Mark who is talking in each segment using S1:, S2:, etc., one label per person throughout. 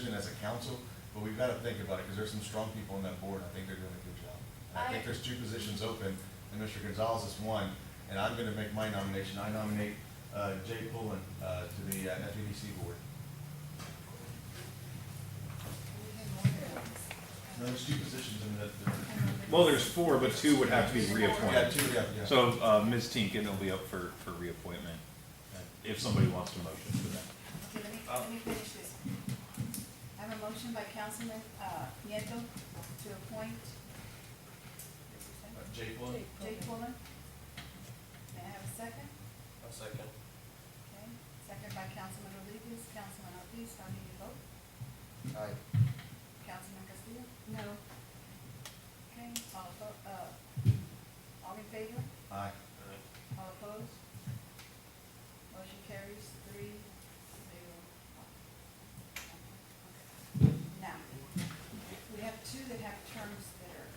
S1: decision as a council, but we've gotta think about it, because there's some strong people on that board, and I think they're doing a good job. And I think
S2: I-
S1: there's two positions open, and Mr. Gonzalez is one, and I'm gonna make my nomination, I nominate, uh, Jay Pullen, uh, to the uh, FEDC board. No, there's two positions in that.
S3: Well, there's four, but two would have to be
S1: Yeah,
S3: reappointed.
S1: two, yeah, yeah.
S3: So uh, Ms. Tinkin will be up for, for reappointment, uh, if somebody wants to motion for
S2: Okay,
S3: that.
S2: let me, let me finish this. I have a motion by Councilman, uh, Nieto to appoint
S1: Uh, Jay Pullen?
S2: Jay Pullen. May I have a second?
S4: A second.
S2: Okay, second by Councilman Rodriguez, Councilman Ortiz, how do you vote?
S4: Aye.
S2: Councilman Castillo? No. Okay, all oppo, uh, all in favor?
S1: Aye.
S2: All opposed? Motion carries three, zero. Okay. Now, we have two that have terms that are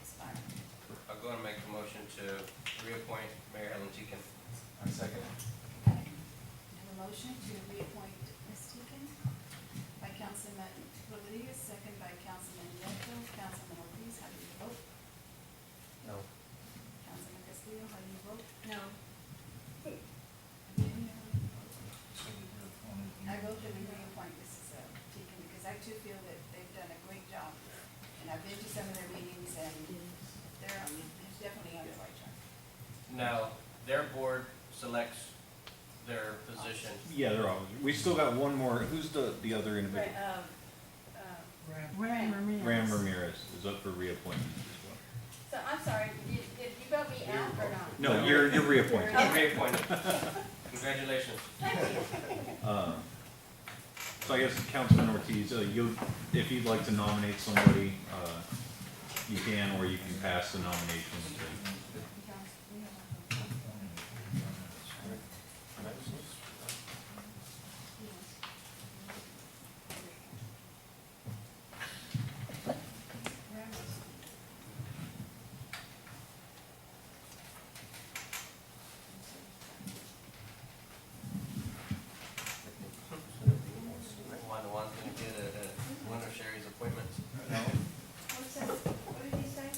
S2: expiring.
S4: I'll go and make the motion to reappoint Mayor Ellen Deacon.
S1: I second.
S2: Have a motion to reappoint Ms. Teakin by Councilman Rodriguez, second by Councilman Nieto. Councilman Ortiz, how do you vote?
S4: No.
S2: Councilman Castillo, how do you vote?
S5: No.
S2: I vote that we reappoint Mrs. Teakin because I too feel that they've done a great job. And I've been to some of their meetings and they're, on- it's definitely on the right track.
S4: Now, their board selects their position.
S3: Yeah, they're all, we still got one more, who's the, the other individual?
S5: um,
S6: Ram Ramirez.
S3: Ram Ramirez is up for reappointment as
S5: So I'm sorry, did, did you vote me out or not?
S3: well. No, you're, you're reappointed.
S4: You're Reappointed. Congratulations.
S3: Um, So I guess Councilman Ortiz, uh, you, if you'd like to nominate somebody, uh, you can, or you can pass the nomination to.
S4: One, one's gonna get a, a- one of Sherry's appointments.
S5: What's that? What did you say?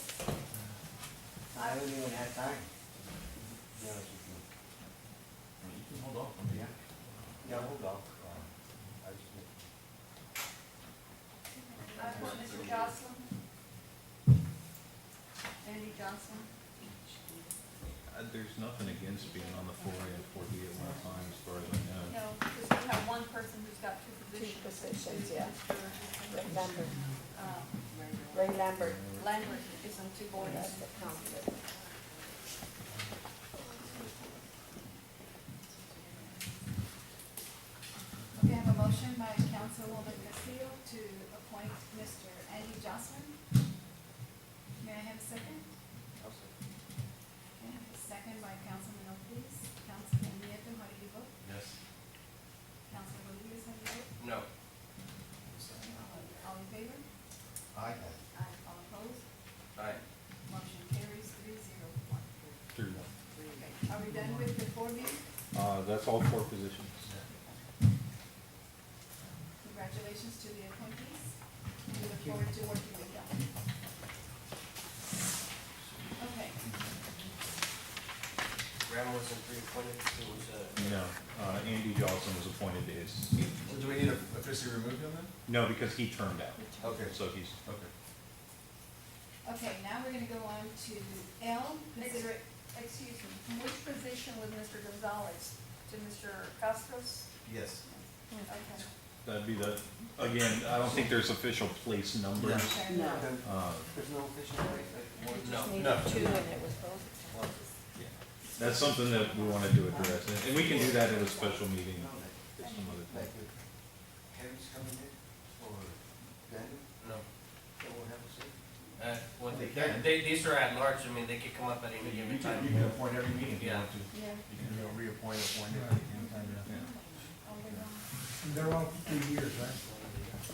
S7: I don't even have time. to be honest with you.
S1: You can hold off on the act.
S7: Yeah, hold off. Uh, I just-
S2: Uh, Mr. Jocelyn? Andy Johnson?
S3: Uh, There's nothing against being on the four A and four B at one time, as far as I know.
S2: No, because we have one person who's got two positions.
S6: Two positions, yeah.
S2: Mr.
S6: Lambert,
S2: Uh,
S6: Ray Lambert,
S2: Lambert is on two boards.
S6: that's the conflict.
S2: We have a motion by Councilwoman Castillo to appoint Mr. Andy Jocelyn. May I have a second? May I have a second by Councilman Ortiz? Councilman Nieto, how do you vote?
S1: Yes.
S2: Councilman Rodriguez, how do you vote?
S4: No.
S2: All in favor?
S1: Aye.
S2: Aye. All opposed?
S4: Aye.
S2: Motion carries three zero one.
S3: Through one.
S2: Okay, Are we done with the four B?
S3: Uh, that's all four positions.
S2: Congratulations to the appointees. We look forward to working with y'all. Okay,
S4: Graham wasn't reappointed, it was,
S3: No, uh, Andy Johnson was appointed to his seat.
S1: Well, do we need to officially remove him then?
S3: No, because he turned out,
S1: Okay,
S3: so he's,
S1: okay.
S2: okay, now we're gonna go on to L, consider it,
S5: Excuse me, from which position was Mr. Gonzalez to Mr. Costos?
S1: Yes.
S2: okay.
S3: that'd be the, again, I don't think there's official place numbers.
S2: Okay.
S6: No.
S7: There's-
S3: Uh,
S7: There's no official way, like,
S4: uh,
S7: one-
S4: no.
S6: Needed
S1: no.
S6: two and it was both.
S3: That's something that we wanted to address, and- and we can do that at a special meeting
S7: no, like-
S3: at some other time.
S7: Like, if Harry's coming in, or Daniel,
S4: No.
S7: then we'll have a say.
S4: Uh, well,
S1: They
S4: they're-
S1: can.
S4: they, these are at large, I mean, they could come up at
S1: You
S4: any
S1: can,
S4: given time.
S1: you can appoint every meeting if you
S4: Yeah.
S1: want to.
S2: Yeah.
S1: You can you know, reappoint, appoint every time.
S3: Yeah.
S2: Oh, we're on-
S8: They're all three years, right?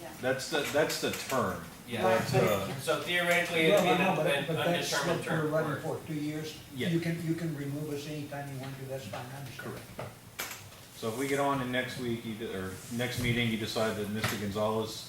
S2: yeah.
S3: That's the, that's the term.
S4: Yeah,
S3: That's, uh,
S4: so theoretically, it'd
S8: Well,
S4: be
S8: I know,
S4: an
S8: but,
S4: an
S8: but that's
S4: undetermined
S8: what we're
S4: term.
S8: running
S4: or-
S8: for, two years.
S3: Yeah.
S8: You can, you can remove us anytime you want to, that's fine, I understand.
S3: Correct. so if we get on and next week, you, de- or next meeting, you decide that Mr. Gonzalez